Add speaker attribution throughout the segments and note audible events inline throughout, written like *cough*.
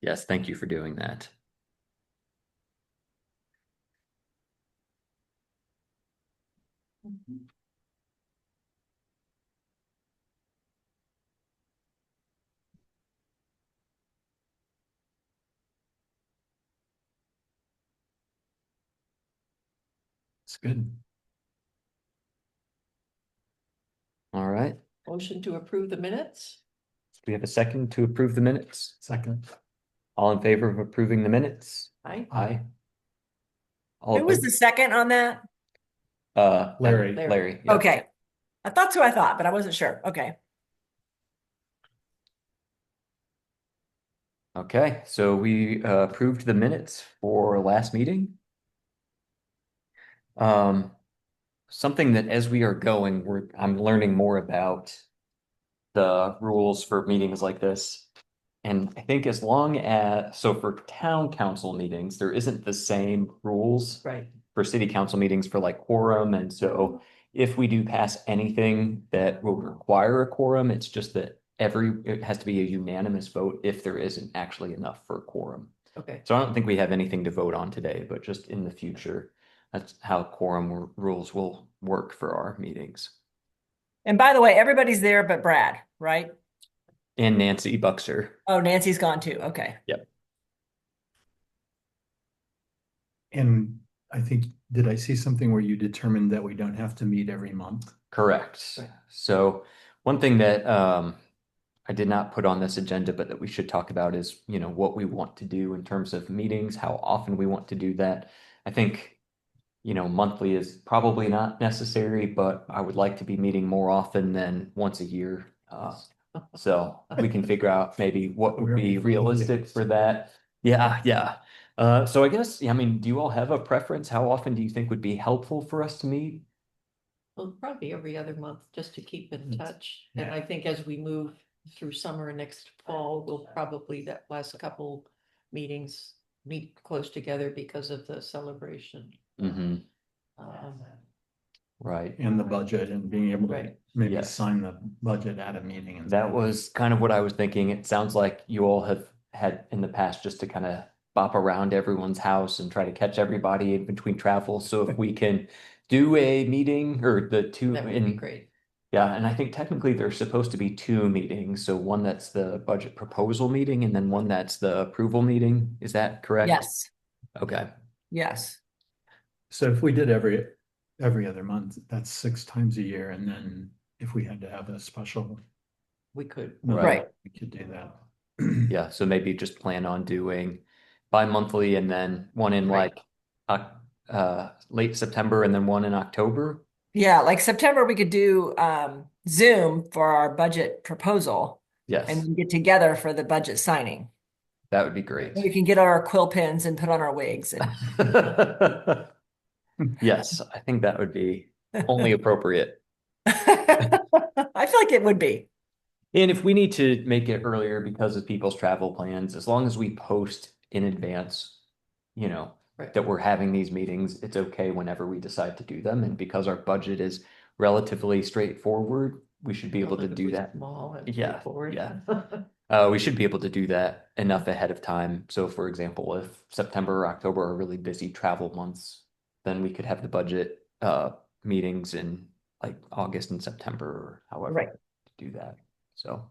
Speaker 1: Yes, thank you for doing that. It's good. All right, do
Speaker 2: Motion to approve the minutes?
Speaker 1: we have a second to approve the minutes?
Speaker 3: Second.
Speaker 1: All in favor of approving the minutes?
Speaker 2: Aye.
Speaker 1: Aye. All
Speaker 4: Who was
Speaker 1: opposed?
Speaker 4: the second on that?
Speaker 1: Uh,
Speaker 3: Larry.
Speaker 2: Larry.
Speaker 1: Larry. yeah.
Speaker 4: Okay. I thought so, I thought, but I wasn't sure. Okay.
Speaker 1: Okay, so we uh, approved the minutes for last meeting. Um, something that as we are going, we're, I'm learning more about the rules for meetings like this. And I think as long as, so for town council meetings, there isn't the same rules
Speaker 2: Right.
Speaker 1: for city council meetings for like quorum, and so if we do pass anything that will require a quorum, it's just that every, it has to be a unanimous vote if there isn't actually enough for a quorum.
Speaker 2: Okay,
Speaker 1: So I don't think we have anything to vote on today, but just in the future, that's how quorum r- rules will work for our meetings.
Speaker 4: And by the way, everybody's there but Brad, right?
Speaker 1: And Nancy Buxer,
Speaker 4: Oh, Nancy's gone too. Okay.
Speaker 3: And I think, did I see something where you determined that we don't have to meet every month?
Speaker 1: correct. So one thing that um I did not put on this agenda, but that we should talk about is, you know, what we want to do in terms of meetings, how often we want to do that. I think, you know, monthly is probably not necessary, but I would like to be meeting more often than once a year. Uh, so we can figure out maybe what would
Speaker 3: Where we
Speaker 1: be
Speaker 3: can
Speaker 1: realistic
Speaker 3: get-
Speaker 1: for that. Yeah, yeah. Uh, so I guess, yeah, I mean, do you all have a preference? How often do you think would be helpful for us to meet?
Speaker 2: well, probably every other month, just to keep in
Speaker 3: Mm.
Speaker 2: touch. And
Speaker 3: Yeah.
Speaker 2: I think as we move through summer and next fall, we'll probably, that last couple meetings meet close together because of the celebration.
Speaker 1: Mm-hmm.
Speaker 2: Um,
Speaker 1: Right.
Speaker 3: And the budget and being able to
Speaker 2: Right.
Speaker 3: maybe
Speaker 1: Yes.
Speaker 3: sign the budget at a meeting and.
Speaker 1: That
Speaker 3: stuff.
Speaker 1: was kind of what I was thinking. It sounds like you all have had in the past just to kind of bop around everyone's house and try to catch everybody in between travel. So if we can do a meeting or the two
Speaker 2: That would be
Speaker 1: in,
Speaker 2: great.
Speaker 1: yeah, and I think technically there's supposed to be two meetings. So one that's the budget proposal meeting and then one that's the approval meeting. Is that correct?
Speaker 4: Yes.
Speaker 1: Okay.
Speaker 4: Yes.
Speaker 3: So if we did every, every other month, that's six times a year, and then if we had to have a special.
Speaker 2: We could.
Speaker 1: Right.
Speaker 3: We could do that.
Speaker 1: Yeah, so maybe just plan on doing bi-monthly and then one in
Speaker 2: Right.
Speaker 1: like Oc- uh late September and then one in October.
Speaker 4: Yeah. Like September, we could do um, Zoom for our budget proposal and
Speaker 1: Yes,
Speaker 4: we get together for the budget signing.
Speaker 1: that would be great.
Speaker 4: We can get our quill pens and put on our wigs.
Speaker 1: *laughs*
Speaker 4: And *laughs*
Speaker 1: Yes, I think that would be only appropriate.
Speaker 4: I feel like it would be.
Speaker 1: And if we need to make it earlier because of people's travel plans, as long as we post in advance, you know,
Speaker 2: Right.
Speaker 1: that we're having these meetings, it's okay whenever we decide to do them. And because our budget is relatively straightforward, we should be able to do
Speaker 2: Relatively
Speaker 1: that.
Speaker 2: Small and
Speaker 1: Yeah,
Speaker 2: straightforward.
Speaker 1: yeah.
Speaker 2: *laughs*
Speaker 1: Uh, we should be able to do that enough ahead of time. So for example, if September or October are really busy travel months, then we could have the budget uh meetings in like August and September or however
Speaker 4: Right.
Speaker 1: to do that. So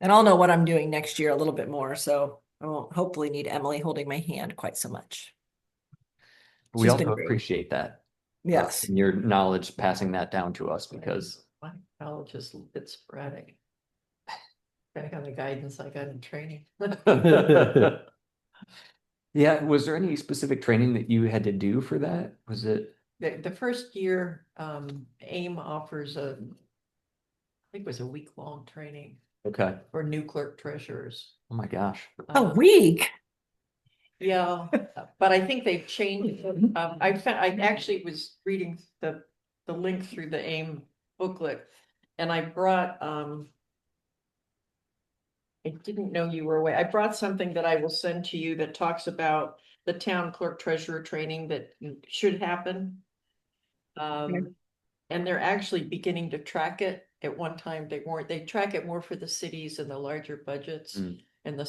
Speaker 4: And I'll know what I'm doing next year a little bit more. So I won't hopefully need Emily holding my hand quite so much.
Speaker 1: we
Speaker 4: She's
Speaker 1: also
Speaker 4: been great.
Speaker 1: appreciate that. uh,
Speaker 4: Yes.
Speaker 1: and your knowledge passing that down to us
Speaker 4: *laughs*
Speaker 1: because
Speaker 2: My knowledge is a bit sporadic. *sighs* Back on the guidance I got in training. *laughs*
Speaker 1: yeah, was there any specific training that you had to do for that? Was it
Speaker 2: The, the first year, um, AIM offers a, I think it was a week-long training
Speaker 1: okay?
Speaker 2: for new clerk treasurers.
Speaker 1: Oh my gosh.
Speaker 4: A
Speaker 2: Um,
Speaker 4: week.
Speaker 2: Yeah, but I think they've changed, it. um, I found, I actually was reading the, the link through the AIM booklet. And I brought, um. I didn't know you were away, I brought something that I will send to you that talks about the town clerk treasurer training that should happen. Um, and they're actually beginning to track it, at one time they weren't, they track it more for the cities and the larger budgets.
Speaker 1: Mm.